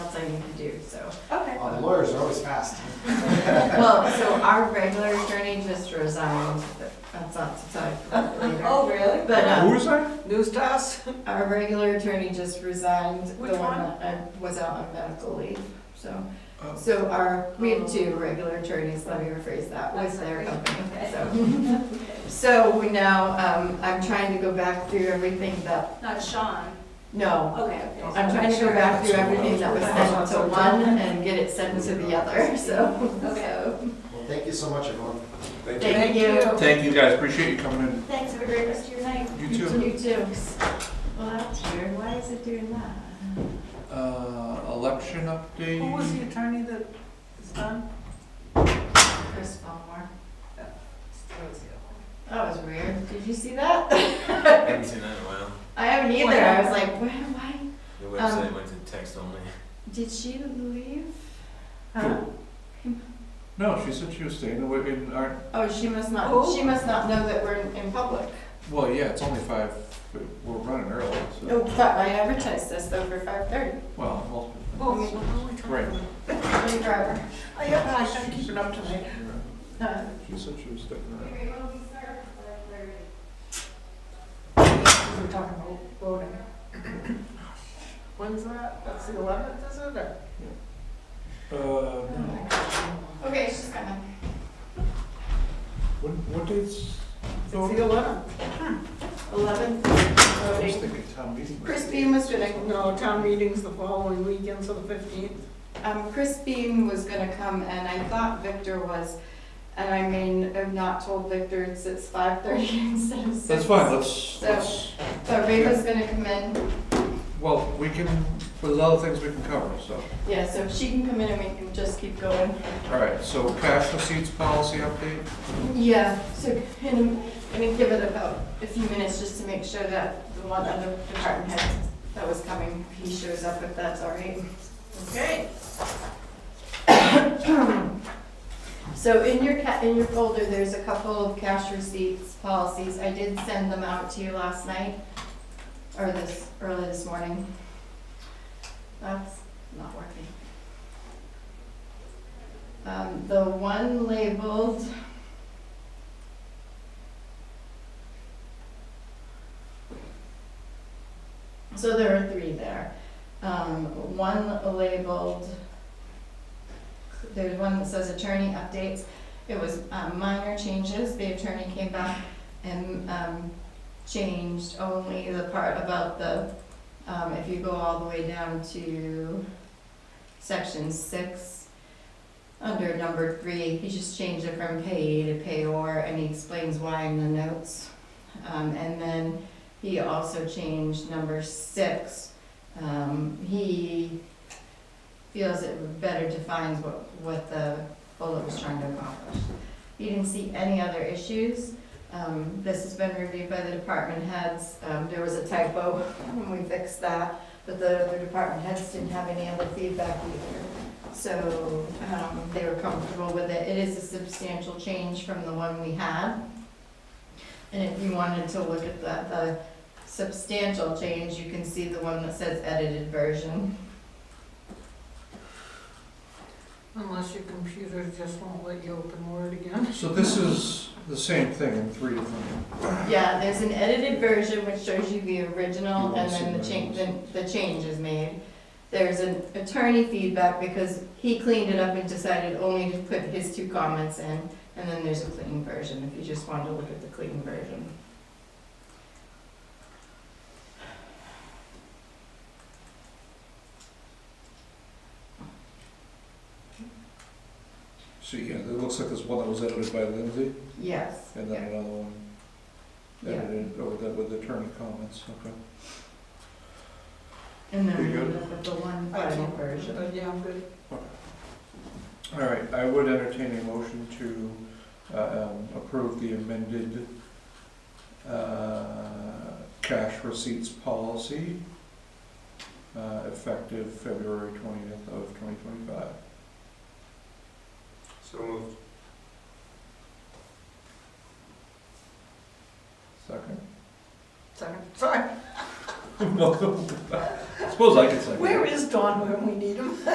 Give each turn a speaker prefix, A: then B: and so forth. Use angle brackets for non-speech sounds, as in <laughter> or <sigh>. A: need to do, so.
B: Okay.
C: Oh, the lawyers are always fast.
A: Well, so our regular attorney just resigned, but that's not subsided for later.
B: Oh, really?
A: But,
D: Who
A: um,
D: is that?
B: News to us?
A: our regular attorney just resigned, the
B: Which
A: one
B: one?
A: that I was out on medical leave, so.
D: Oh.
A: So our, we have two regular attorneys, let me rephrase that, was their company, so. <laughs> So we now, um, I'm trying to go back through everything that,
E: Not Sean,
A: no,
E: okay.
A: I'm trying to go back through everything that was sent to one and get it sent to the other, so.
E: Okay.
C: Well, thank you so much, everyone.
A: Thank you.
D: Thank you guys, appreciate you coming
E: Thanks, have a great rest of your night.
D: in. You too.
A: You too. Well, that's weird, why is it doing that?
D: Uh, election update?
B: Who was the attorney that is done?
A: Chris Ballmore.
B: That was the other
A: That was weird, did you see that? <laughs>
F: Haven't seen that in a while.
A: I haven't either, I was like, why, why,
F: The
E: Um,
F: website went to text only.
A: did she leave? Uh,
B: one. Huh?
D: No, she said she was staying away in our,
A: Oh, she must not,
B: Who?
A: she must not know that we're in in public.
D: well, yeah, it's only five, but we're running early, so.
B: Oh.
A: No, but I advertised this though for five thirty,
D: Well, multiple.
B: Well, we- we're only talking
D: Right.
B: about-
A: I'm a driver.
B: Oh, yeah, no, I started keeping up to date.
A: Uh,
B: Huh?
D: She said she was staying around.
B: We're talking about voting. When's that? That's the eleventh, is it, or?
D: Uh, no.
A: Okay, she's coming.
D: what, what date's?
B: It's
D: voting?
B: the eleventh. Uh,
A: Eleven
D: I was
A: voting.
D: thinking town meeting. was-
A: Chris Beam was gonna,
B: No, town meeting's the following weekend, so the fifteenth.
A: um, Chris Beam was gonna come and I thought Victor was, and I mean, I've not told Victor it's, it's five thirty <laughs> instead of six.
D: That's fine, let's,
A: So-
D: let's,
A: So Reva's gonna come in,
D: well, we can, there's other things we can cover, so.
A: yeah, so if she can come in and we can just keep going.
D: All right, so cash receipts policy update?
A: Yeah, so I'm gonna give it about a few minutes just to make sure that the one other department head that was coming, he shows up if that's all right.
B: Okay.
A: <coughs> So in your ca, in your folder, there's a couple of cash receipts policies. I did send them out to you last night, or this, early this morning. That's not working. Um, the one labeled. So there are three there. Um, one labeled there's one that says attorney updates. It was um, minor changes. The attorney came back and um, changed only the part about the, um, if you go all the way down to section six, under number three, he just changed it from payee to payor, and he explains why in the notes. Um, And then he also changed number six. Um, He feels it better defines what, what the bullet was trying to accomplish. He didn't see any other issues. Um, this has been reviewed by the department heads. Um, there was a typo, <laughs> and we fixed that, but the other department heads didn't have any other feedback either. So, um, they were comfortable with it. It is a substantial change from the one we had. And if you wanted to look at the, the substantial change, you can see the one that says edited version.
B: Unless your computer just won't let you open Word again.
D: So this is the same thing in three different,
A: Yeah, there's an edited version which shows you the original
D: You
A: and
D: won't
A: then the
D: see
A: change,
D: those.
A: the, the change is made. There's an attorney feedback because he cleaned it up and decided only to put his two comments in. And then there's a clean version, if you just wanted to look at the clean version.
D: so yeah, it looks like there's one that was edited by Lindsay,
A: Yes.
D: and then another one
A: Yeah.
D: edited, or that with attorney comments, okay.
A: And then
D: You
A: we
D: good?
A: end up with the one
B: I
A: final
B: can't-
A: version.
B: But yeah, I'm good.
D: All right, I would entertain a motion to uh, um, approve the amended uh, cash receipts policy uh, effective February twentieth of twenty twenty-five.
F: So moved.
D: Second?
B: Second,
D: <laughs>
B: sorry. <laughs>
D: Welcome. Suppose I could second. it.
B: Where is Don when we need him?